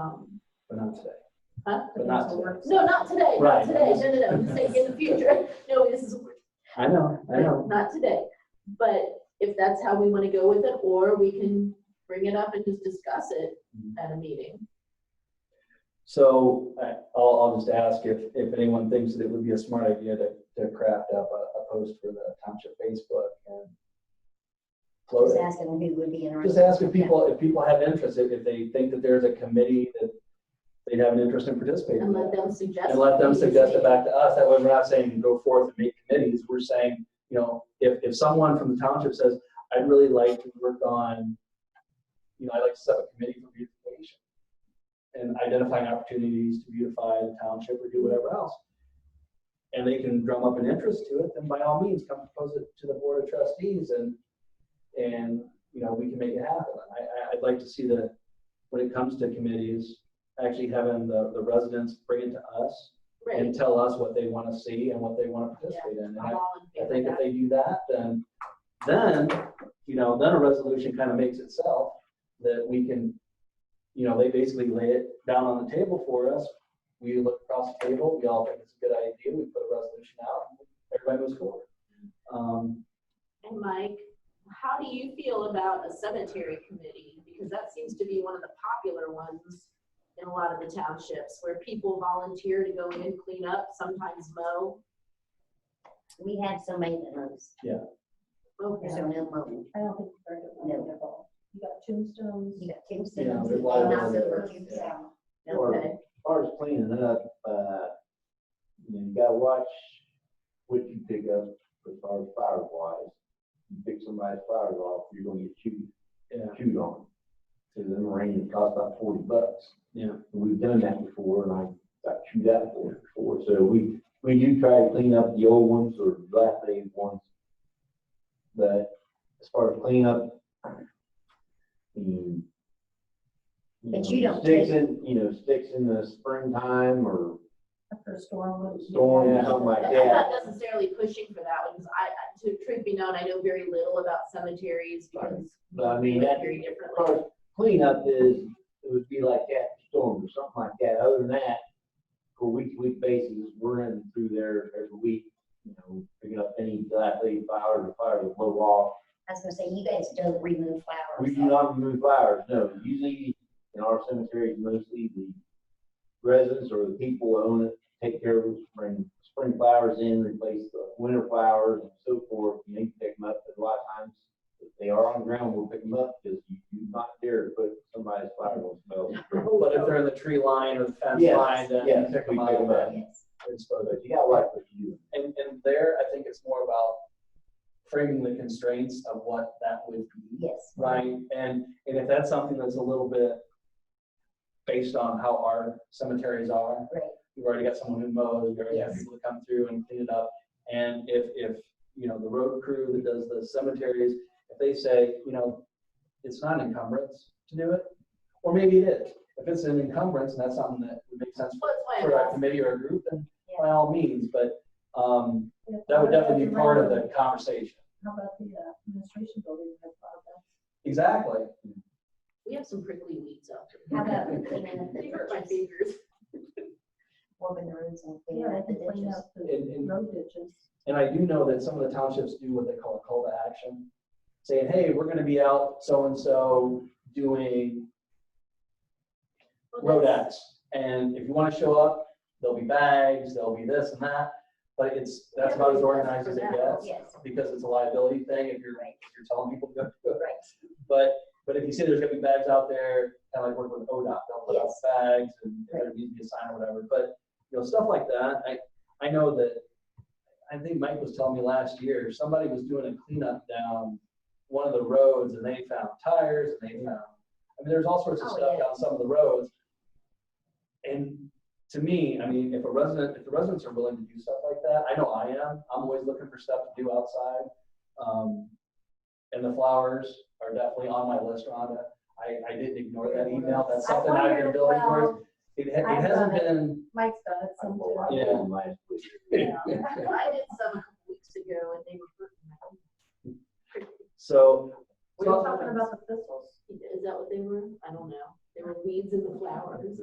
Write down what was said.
Um, but not today. huh? But not today. No, not today, not Right. today, no, no, no, I'm just saying in the future, no, this is, I know, I know. not today. But if that's how we wanna go with it, or we can bring it up and just discuss it Mm-hmm. at a meeting. So I- I'll, I'll just ask if, if anyone thinks that it would be a smart idea to, to craft up a, a post for the township Facebook and float Just it. ask them who would be interested. Just ask if people, if people have interest, if, if they think that there's a committee that they'd have an interest in participating. And in. let them suggest. And let them what we suggest think. it back to us. That way we're not saying go forth and make committees. We're saying, you know, if, if someone from the township says, I'd really like to work on, you know, I'd like to set up a committee for beautification and identifying opportunities to beautify the township or do whatever else. And they can drum up an interest to it, then by all means, come propose it to the board of trustees and, and, you know, we can make it happen. I, I, I'd like to see the, when it comes to committees, actually having the, the residents bring it to us Right, and tell us what they want to see and what they want to participate in. And I'm I all in I favor think of if that. they do that, then, then, you know, then a resolution kind of makes itself that we can, you know, they basically lay it down on the table for us. We look across the table, we all think it's a good idea, we put a resolution out, and everybody moves forward. Um, And Mike, how do you feel about a cemetery committee? Because that seems to be one of the popular ones in a lot of the townships where people volunteer to go in and clean up, sometimes mow. We have somebody that knows, Okay. there's no mowing. I don't think you've heard of No. one at all. You got tombstones. You got Yeah, tombstones. there's a and lot of not those over that- tombstone. Or as Okay. far as cleaning it up, uh, you know, you gotta watch what you pick up as far as fire wise. You pick somebody's fire off, you're gonna get chewed, yeah, chewed on. Cause them ranges cost about forty bucks. Yeah. And We've done that before and I got chewed out for it before. So we, we do try to clean up the old ones or dilapidated ones. But as far as clean up, mm, But know, you don't Sticks take- in, you know, sticks in the springtime or After a storm. storm or something like I'm that. not necessarily pushing for that one, because I, I- to truth be known, I know very little about cemeteries because. But I they mean, look that, Very as differently. far as cleanup is, it would be like that storm or something like that. Other than that, for week-to-week basis, we're in through there every week, you know, picking up any dilapidated flowers or flowers that blow off. I was gonna say, you guys don't remove flowers. We do not remove flowers, no. Usually in our cemeteries, mostly the residents or the people who own it take care of it, bring spring flowers in, replace the winter flowers and so forth. You need to pick them up, but a lot of times if they are on the ground, we'll pick them up because you do not dare to put somebody's flower on the smell. but if they're in the tree line or the fence Yes, line, then you yes, pick we them pick up 'em up. and Yes. dispose of But you gotta like what you do. And, and there, I think it's more about framing the constraints of what that would be. Yes. Right, and, and if that's something that's a little bit based on how our cemeteries are. Right. We've already got someone who mows, we already got Yes. people that come through and clean it up. And if, if, you know, the road crew that does the cemeteries, if they say, you know, it's not an encumbrance to do it, or maybe it is. If it's an encumbrance and that's something that would make sense Well, that's for why I'm a asking. committee or a group, then by all means, but, um, that would Yeah, definitely be part of the conversation. How about the uh, administration building? Have thought about Exactly. We have some prickly weeds out How about cleaning up there. They hurt the my ditches, fingers. warming the roofs and cleaning up that? the Yeah, clean ditches? up the And, and, road ditches. and I do know that some of the townships do what they call a call to action, saying, hey, we're gonna be out so-and-so doing Well, road that's- acts. And if you wanna show up, there'll be bags, there'll be this and that, but it's, that's about as organized as it gets. Yes, Because it's a liability thing if you're, Right. if you're telling people to go do it. right. But, but if you see there's gonna be bags out there, kind of like working with ODOT, they'll put out Yes. bags and if there needs to be a sign or whatever, but, you know, stuff like that, I, I know that, I think Mike was telling me last year, somebody was doing a cleanup down one of the roads and they found tires and they found, I mean, there's all sorts of Oh, stuff yeah. down some of the roads. And to me, I mean, if a resident, if the residents are willing to do stuff like that, I know I am, I'm always looking for stuff to do outside. Um, and the flowers are definitely on my list, Rhonda. I, I didn't ignore that email. That's I something I've been wondered, building towards. well, It, ha- it I've hasn't done been, Mike's done it I some pulled too. my Yeah. phone last week. Yeah. I did some a couple weeks ago and they were hurting my so. We're talking about the thistles. Is that what they were? I don't know. There were weeds in the flowers.